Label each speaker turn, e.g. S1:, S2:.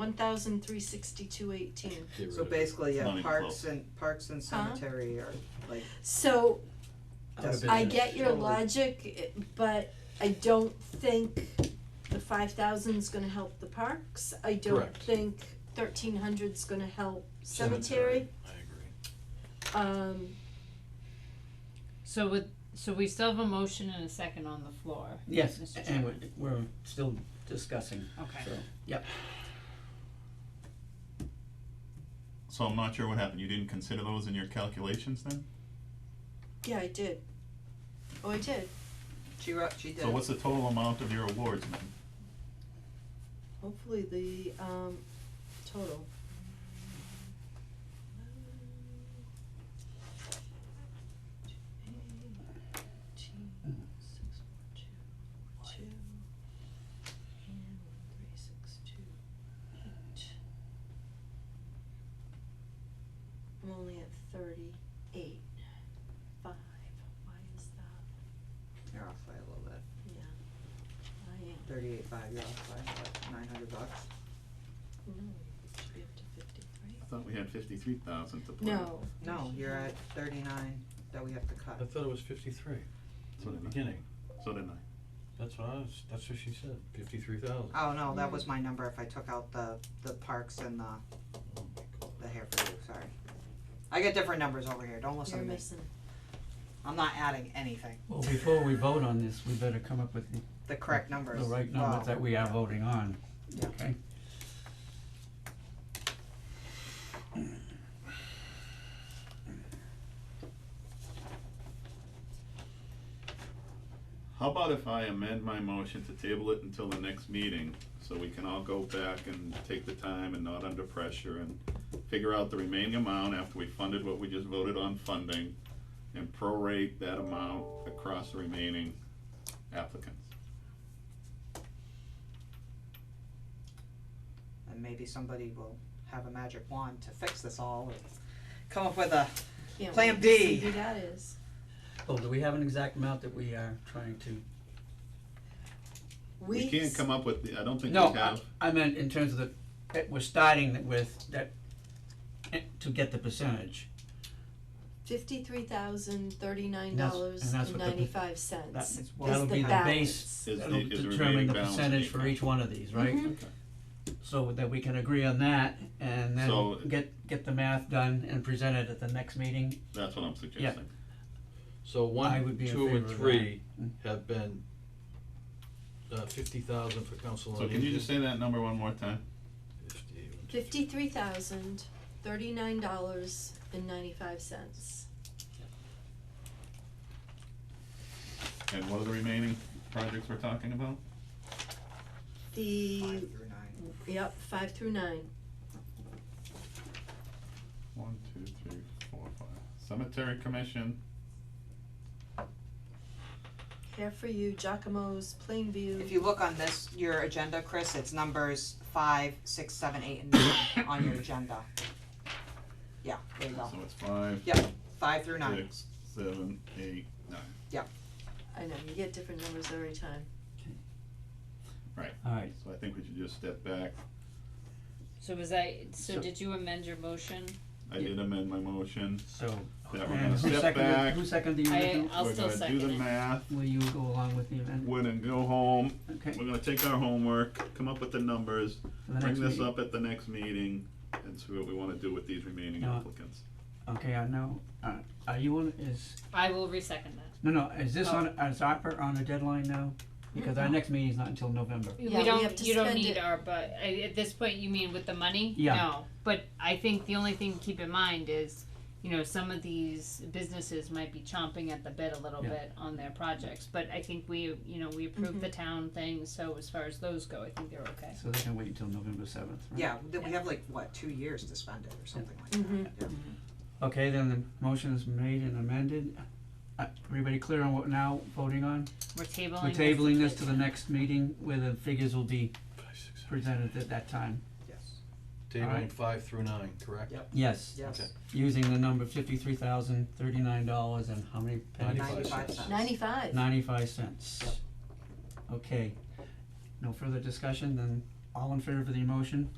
S1: one thousand three sixty-two eighteen.
S2: Get rid
S3: So
S2: of it.
S3: basically,
S4: Not
S3: yeah,
S4: even
S3: parks
S4: close.
S3: and, parks and
S1: Huh?
S3: cemetery are like,
S1: So
S2: Out of
S3: Doesn't-
S1: I
S2: business.
S1: get your
S3: Totally.
S1: logic, but I don't think the five thousand's gonna help the parks, I don't
S2: Correct.
S1: think thirteen hundred's gonna help cemetery,
S2: Cemetery, I agree.
S1: um,
S5: So with, so we still have a motion and a second on the floor.
S6: Yes,
S5: Mr.
S6: and
S5: Chairman.
S6: we're, we're still discussing,
S5: Okay,
S6: so, yep.
S4: So I'm not sure what happened, you didn't consider those in your calculations then?
S1: yeah, I did. Oh, I did,
S3: she wrote, she did.
S4: So what's the total amount of your awards then?
S1: hopefully the, um, total. I'm only at thirty-eight, five, why is that,
S3: You're off by a little bit,
S1: yeah, I am.
S3: thirty-eight five, you're off by what, nine hundred bucks?
S1: No, it should be up to fifty-three.
S4: I thought we had fifty-three thousand to play.
S1: No.
S3: No, you're at thirty-nine that we have to cut.
S2: I thought it was fifty-three
S4: So
S2: from the
S4: did I.
S2: beginning.
S4: So didn't I.
S2: That's what I was, that's what she said, fifty-three thousand.
S3: Oh, no, that was my number if I took out the, the parks and the,
S2: Oh my god.
S3: the hair for you, sorry. I get different numbers over here, don't listen
S1: You're
S3: to me,
S1: missing.
S3: I'm not adding anything,
S6: Well, before we vote on this, we better come up with the,
S3: the correct numbers.
S6: the right
S3: Wow.
S6: numbers that we are voting on,
S3: Yeah.
S6: okay?
S4: How about if I amend my motion to table it until the next meeting, so we can all go back and take the time and not under pressure and figure out the remaining amount after we funded what we just voted on funding, and prorate that amount across the remaining applicants.
S3: And maybe somebody will have a magic wand to fix this all, or come up with a,
S1: Can't
S3: Plan
S1: wait to see
S3: B.
S1: Who that is.
S6: Well, Oh, do we have an exact amount that we are trying to?
S4: We can't come up with, the I don't think we
S6: No,
S4: have.
S6: I, I meant in terms of the, that we're starting with, that, eh, to get the percentage,
S1: Fifty-three thousand thirty-nine
S6: And
S1: dollars
S6: that's- and that's
S1: and
S6: what the-
S1: ninety-five
S6: that,
S1: cents
S3: It's-
S6: that'll
S1: is
S6: be
S1: the
S6: the
S1: balance.
S6: base,
S4: Is the-
S6: that'll
S4: is the
S6: determine
S4: remaining
S6: the
S4: balance in
S6: percentage
S4: the
S6: for
S4: account.
S6: each one of these, right?
S1: Mhm.
S4: Okay.
S6: So that we can agree on that, and then
S4: So-
S6: get, get the math done and present it at the next meeting,
S4: That's what I'm suggesting.
S2: So
S6: I
S2: one,
S6: would be in
S2: two,
S6: favor
S2: and
S6: of that.
S2: three
S6: Mm.
S2: have been, uh, fifty thousand for council on
S4: So
S2: aging.
S4: can you just say that number one more time?
S2: 50.
S1: Fifty-three thousand thirty-nine dollars and ninety-five cents.
S4: And what are the remaining projects we're talking about?
S1: The,
S3: five through nine.
S1: yep, five through nine.
S4: One, two, three, four, five. Cemetery Commission,
S1: Hair for You, Giacomo's, Plainview.
S3: If you look on this, your agenda, Chris, it's numbers five, six, seven, eight, and nine on your agenda. Yeah, there you go,
S4: so it's five,
S3: yep, five through nine,
S4: six, seven, eight, nine.
S1: I know, you get different numbers every time.
S6: alright,
S4: So I think we should just step back.
S5: so was I, so
S6: So-
S5: did you amend your motion?
S4: I did amend my motion.
S6: so.
S4: Yeah, we're
S6: and
S4: gonna
S6: who
S4: step
S6: seconded-
S4: back.
S6: Who seconded the
S5: I-
S6: amendment?
S5: I'll still second
S4: We're gonna do
S5: it.
S4: the math,
S6: Will you go along with the amendment?
S4: we're gonna go home,
S6: Okay,
S4: we're gonna take our homework, come up with the numbers,
S6: for the next
S4: bring this
S6: meeting.
S4: up at the next meeting, and see what we wanna do with these remaining
S6: Yeah.
S4: applicants.
S6: Okay, I know, uh, are you on, is,
S5: I will resecond that.
S6: no, no, is this
S3: Oh.
S6: on, is ARPA on a deadline now? Because our next meeting's not until November.
S1: Yeah,
S5: We
S1: we have
S5: don't,
S1: to
S5: you don't
S1: spend
S5: need
S1: it.
S5: our, but, I, at this point, you mean with the money?
S6: Yeah.
S5: No, but I think the only thing to keep in mind is, you know, some of these businesses might be chomping at the bit a little
S6: Yeah.
S5: bit on their projects, but I think we, you know, we approved the
S1: Mm-hmm.
S5: town thing, so as far as those go, I think they're okay.
S6: So they can wait until November seventh, right?
S3: yeah, then we have like, what, two years to spend it or something like
S1: Mm-hmm.
S3: that, yeah.
S6: Okay, then the motion is made and amended, uh, everybody clear on what now voting on?
S5: We're tabling.
S6: We're tabling this to the next meeting where the figures will be
S2: Five, six, seven.
S6: presented at that time.
S3: Yes,
S2: Tabling
S6: Alright.
S2: five through nine, correct?
S3: Yep.
S6: Yes.
S3: yes,
S2: Okay.
S6: using the number fifty-three thousand thirty-nine dollars and how many pennies?
S2: Ninety-five
S3: ninety-five
S2: cents.
S3: cents.
S1: Ninety-five.
S6: Ninety-five cents. Okay, no further discussion, then all in favor of the motion?